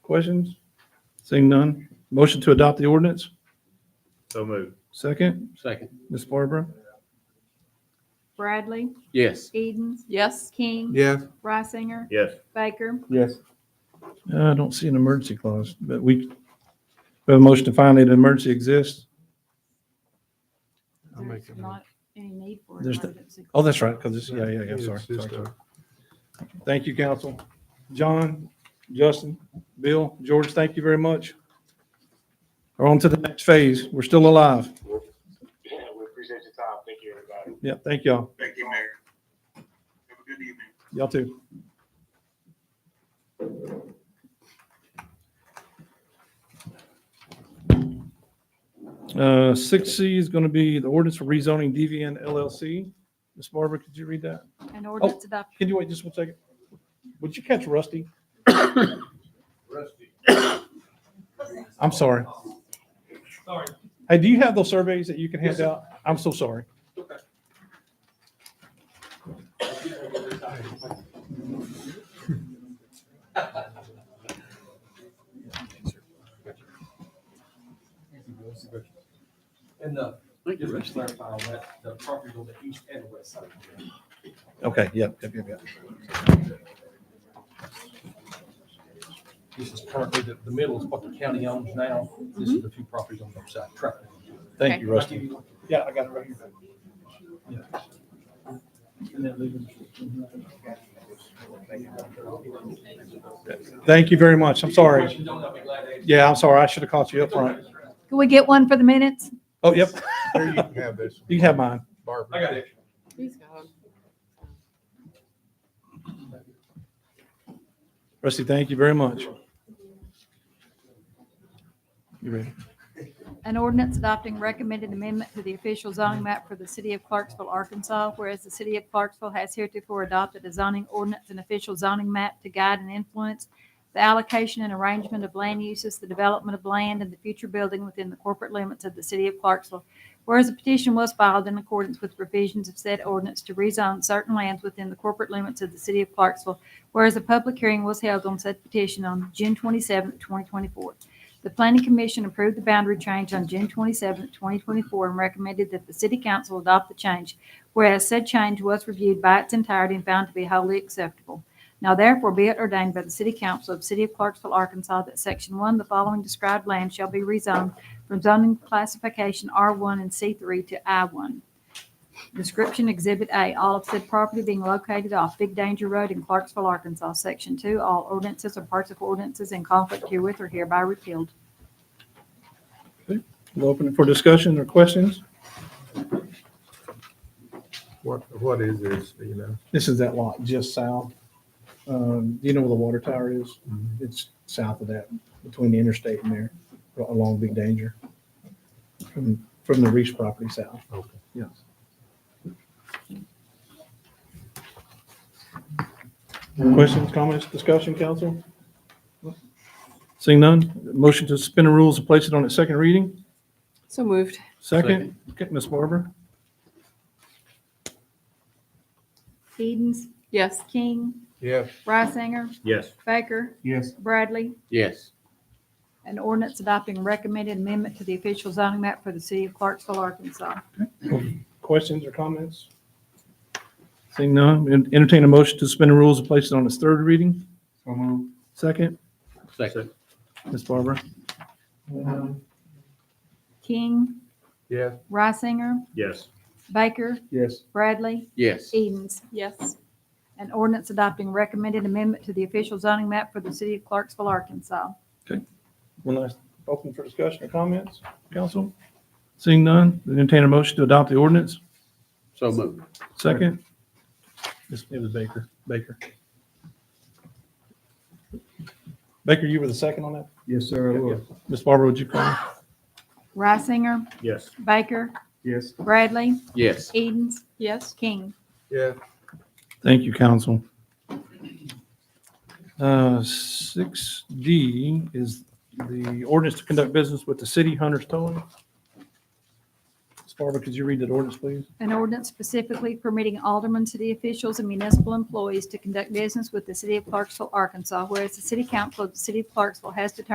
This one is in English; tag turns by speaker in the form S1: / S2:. S1: Questions? Seeing none. Motion to adopt the ordinance.
S2: So moved.
S1: Second,
S3: Second.
S1: Ms. Barbara?
S4: Bradley,
S3: Yes.
S4: Edens,
S5: Yes.
S4: King,
S6: Yes.
S4: Reisinger,
S2: Yes.
S4: Baker,
S6: Yes.
S1: Uh, I don't see an emergency clause, but we, we have a motion to find that an emergency exists.
S6: I'll make
S4: there's
S6: it.
S4: not any need for an
S1: There's the-
S4: emergency.
S1: Oh, that's right, because it's, yeah, yeah, yeah, sorry.
S6: It's just
S1: sorry,
S6: a-
S1: sorry. Thank you, council. John, Justin, Bill, George, thank you very much. We're on to the next phase. We're still alive.
S7: Yeah, we appreciate your time. Thank you, everybody.
S1: Yeah, thank y'all.
S7: Thank you, Mayor. Have a good evening.
S1: Y'all too. Uh, six C is going to be the ordinance for rezoning DVN LLC. Ms. Barbara, could you read that?
S4: An ordinance adopted.
S1: Can you wait just one second? Would you catch Rusty? I'm sorry. Sorry. Hey, do you have those surveys that you can hand out? I'm so sorry.
S8: And the,
S3: Thank you,
S8: just to
S3: Rusty.
S8: clarify, that the property on the east and west side.
S1: Okay, yeah, yep, yep, yep.
S8: This is currently, the, the middle is what the county owns now. This is the two properties on the side. Correct.
S1: Thank you, Rusty.
S8: Yeah, I got it right here.
S1: Thank you very much. I'm sorry.
S8: Questions on that, I'll be glad to answer.
S1: Yeah, I'm sorry. I should have caught you up front.
S4: Can we get one for the minutes?
S1: Oh, yep.
S6: There you can have this.
S1: You can have mine.
S6: Barbara.
S8: I got it.
S5: He's gone.
S1: Rusty, thank you very much. You ready?
S4: An ordinance adopting recommended amendment to the official zoning map for the city of Clarksville, Arkansas, whereas the city of Clarksville has heretofore adopted a zoning ordinance and official zoning map to guide and influence the allocation and arrangement of land uses, the development of land, and the future building within the corporate limits of the city of Clarksville. Whereas a petition was filed in accordance with provisions of said ordinance to rezone certain lands within the corporate limits of the city of Clarksville, whereas a public hearing was held on said petition on June 27, 2024. The Planning Commission approved the boundary change on June 27, 2024, and recommended that the City Council adopt the change, whereas said change was reviewed by its entirety and found to be wholly acceptable. Now therefore be it ordained by the City Council of the City of Clarksville, Arkansas, that Section 1, the following described land shall be rezoned from zoning classification R1 and C3 to I1. Description Exhibit A, all of said property being located off Big Danger Road in Clarksville, Arkansas. Section 2, all ordinances or parts of ordinances in conflict herewith are hereby repealed.
S1: We'll open it for discussion or questions.
S6: What, what is this, do you know?
S1: This is that lot just south. Um, do you know where the water tower is?
S6: Mhm.
S1: It's south of that, between the interstate and there, along Big Danger. From, from the Reese property south.
S6: Okay.
S1: Yes. Questions, comments, discussion, council? Seeing none, motion to suspend the rules and place it on its second reading.
S5: So moved.
S1: Second, okay, Ms. Barber?
S4: Edens,
S5: Yes.
S4: King,
S6: Yes.
S4: Reisinger,
S2: Yes.
S4: Baker,
S6: Yes.
S4: Bradley.
S3: Yes.
S4: An ordinance adopting recommended amendment to the official zoning map for the city of Clarksville, Arkansas.
S1: Questions or comments? Seeing none, en- entertain a motion to suspend the rules and place it on its third reading.
S6: So moved.
S1: Second,
S3: Second.
S1: Ms. Barber? Um,
S4: King,
S6: Yes.
S4: Reisinger,
S2: Yes.
S4: Baker,
S6: Yes.
S4: Bradley,
S3: Yes.
S4: Edens.
S5: Yes.
S4: An ordinance adopting recommended amendment to the official zoning map for the city of Clarksville, Arkansas.
S1: One last, open for discussion or comments, council? Seeing none, then entertain a motion to adopt the ordinance.
S3: So moved.
S1: Second? This- It was Baker, Baker. Baker, you were the second on that?
S6: Yes, sir, I will.
S1: Ms. Barber, would you call?
S4: Reisinger,
S2: Yes.
S4: Baker,
S6: Yes.
S4: Bradley,
S3: Yes.
S4: Edens,
S5: Yes.
S4: King.
S6: Yeah.
S1: Thank you, council. Uh, Six D is the ordinance to conduct business with the city Hunter's Towing. Ms. Barbara, could you read that ordinance, please?
S4: An ordinance specifically permitting aldermen, city officials, and municipal employees to conduct business with the city of Clarksville, Arkansas, whereas the city council of the city of Clarksville has determined